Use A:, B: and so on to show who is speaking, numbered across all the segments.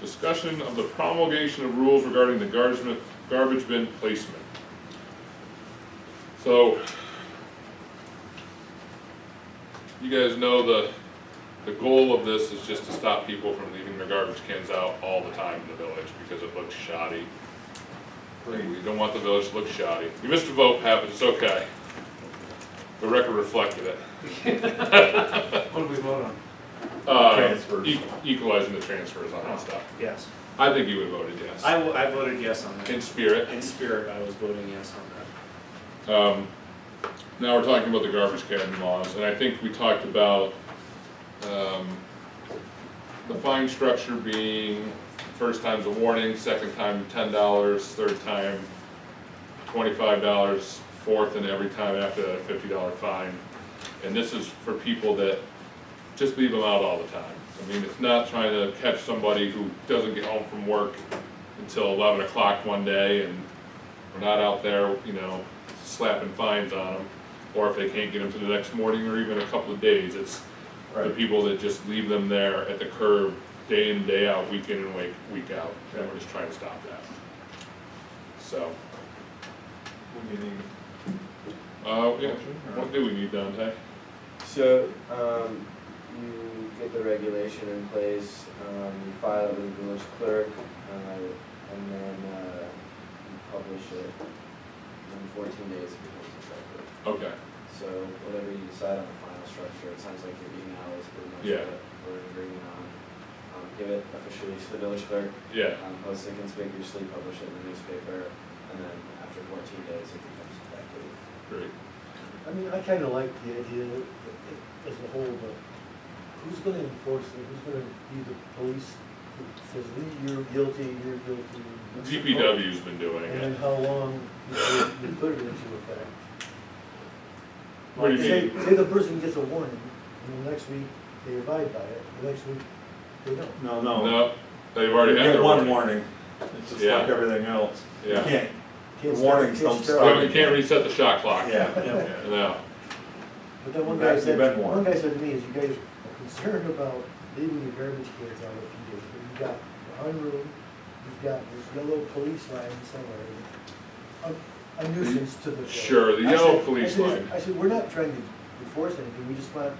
A: discussion of the promulgation of rules regarding the garbage, bin- garbage bin placement. So, you guys know the, the goal of this is just to stop people from leaving their garbage cans out all the time in the village because it looks shoddy. We don't want the village to look shoddy. You missed a vote, happens, it's okay. The record reflected it.
B: What did we vote on?
A: Uh,
C: Transfers.
A: e- Equalizing the transfers on that stuff.
B: Yes.
A: I think you would have voted yes.
B: I, wo- I voted yes on that.
A: In spirit.
B: In spirit, I was voting yes on
A: Um, now we're talking about the garbage can laws, and I think we talked about, um, the fine structure being, first time's a warning, second time ten dollars, third time twenty-five dollars, fourth and every time after that a fifty dollar fine. And this is for people that just leave them out all the time. I mean, it's not trying to catch somebody who doesn't get home from work until eleven o'clock one day and we're not out there, you know, slapping fines on them. Or if they can't get them to the next morning or even a couple of days, it's the
C: Right.
A: people that just leave them there at the curb day in, day out, week in and week, week out. And we're just trying to stop that. So,
C: What do you need?
A: uh, yeah, what do we need, Dante?
D: So, um, you get the regulation in place, um, you file it with the village clerk, uh, and then, uh, you publish it in fourteen days it becomes effective.
A: Okay,
D: So whatever you decide on the final structure, it sounds like your email is pretty much
A: Yeah.
D: what we're agreeing on. Um, give it officially to the village clerk,
A: yeah,
D: um, post it conspicuously, publish it in the newspaper, and then after fourteen days, it becomes effective.
A: great.
E: I mean, I kinda like the idea that- as a whole, but who's gonna enforce it? Who's gonna be the police that says, "Lee, you're guilty, you're guilty?
A: DPW's been doing
E: And then
A: it.
E: how long before you put it into effect?
A: What do you
E: Say-
A: mean?
E: Say the person gets a warning, and the next week they abide by it, the next week they don't.
C: No, no.
A: No, they've already
C: You
A: had
C: get
A: their
C: one
A: warning.
C: warning. It's just
A: Yeah.
C: like everything else. You
A: Yeah.
C: can't,
E: Can't
C: The
E: start-
C: warnings
E: can't
C: don't
E: start-
C: stop.
A: Yeah, You can't reset the shot clock.
C: yeah.
A: No,
E: But then one
C: Back
E: guy
C: to the
E: said,
C: bed
E: one
C: warrant.
E: guy said to me, is you guys are concerned about leaving your garbage cans out a few days, but you've got one room, you've got this yellow police line somewhere, and a, a nuisance to the. village."
A: Sure, the
E: I
A: yellow
E: said- I
A: police
E: said,
A: line.
E: I said, we're not trying to enforce anything, we just want,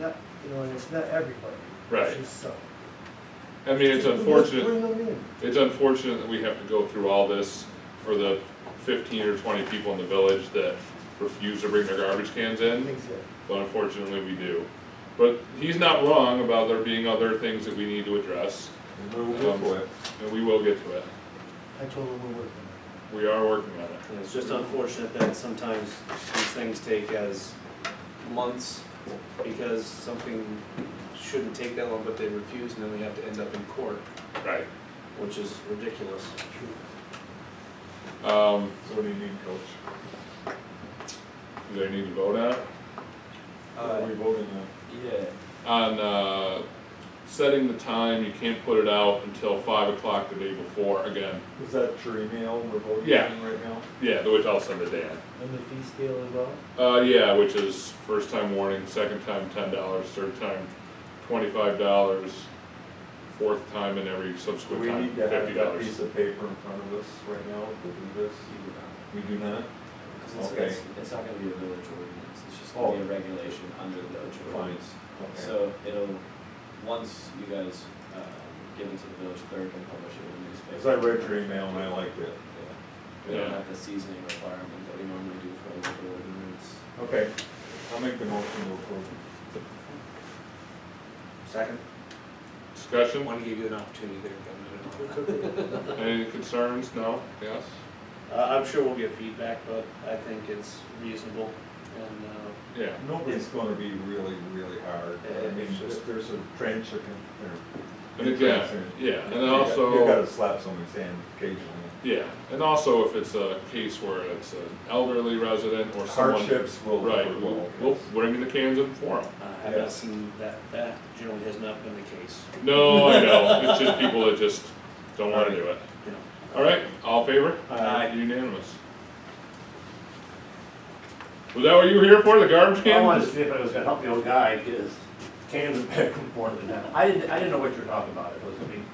E: not, you know, and it's not everybody.
A: Right.
E: It's just some.
A: I mean, it's
E: Just
A: unfortunate.
E: Bring them in.
A: It's unfortunate that we have to go through all this for the fifteen or twenty people in the village that refuse to bring their garbage cans in,
E: Exactly.
A: but unfortunately we do. But he's not wrong about there being other things that we need to address, Um,
C: Move it for it.
A: and we will get to it.
E: I told them we're working on
A: We are working on it.
F: Yeah, It's just unfortunate that sometimes these things take as months because something shouldn't take that long, but they refuse and then we have to end up in court,
A: Right.
F: which is ridiculous.
E: it, true.
A: Um,
C: So what do you need, Coach?
A: do they need to vote on it?
C: What are
F: Uh,
C: we voting on?
D: yeah.
A: On, uh, setting the time, you can't put it out until five o'clock the day before, again,
C: Is that your email we're voting
A: Yeah.
C: on right now?
A: yeah, which I'll send to Dan.
E: And the fee scale as well?
A: Uh, yeah, which is first time warning, second time ten dollars, third time twenty-five dollars, fourth time and every
C: Do
A: subsequent
C: we
A: time
C: need to
A: fifty
C: have that piece
A: dollars.
C: of paper in front of us right now to do this? We do not?
D: Because it's,
C: Okay. Oh.
D: it's, it's not gonna be a village ordinance, it's just gonna be a regulation under the village ordinance.
C: Okay.
D: So it'll, once you guys, um, give it to the village clerk and publish it in the
C: Cause I
D: newspaper.
C: read your email and I liked it.
D: We don't
A: Yeah.
D: have the seasoning requirement that we normally do for a local ordinance.
C: Okay, I'll make the motion to approve.
F: Second. I
A: Discussion,
F: want to give you an opportunity there. but I'm gonna-
A: any concerns, no, yes?
F: Uh, I'm sure we'll get feedback, but I think it's reasonable and, uh,
A: Yeah,
C: Nobody's gonna be really, really hard. I
F: Yeah,
C: mean,
F: it's
C: if
F: just-
C: there's a trench that can, or
A: and again, yeah, and also.
C: You gotta slap somebody's hand occasionally.
A: Yeah, and also if it's a case where it's an elderly resident or someone.
C: Hardships will.
A: Right,
C: will-
A: we'll, we'll bring the cans in for them.
F: I have
C: Yeah.
F: not seen that, that generally has not been the case,
A: No, I know, it's just people that just don't wanna do it.
F: you know.
A: All right, all in favor?
C: Aye.
A: Unanimous. Was that what you were here for, the garbage
G: I wanted to
A: can?
G: see if I was gonna help the old guy get his cans back and forth and that. I didn't, I didn't know what you were talking about, it was, I mean,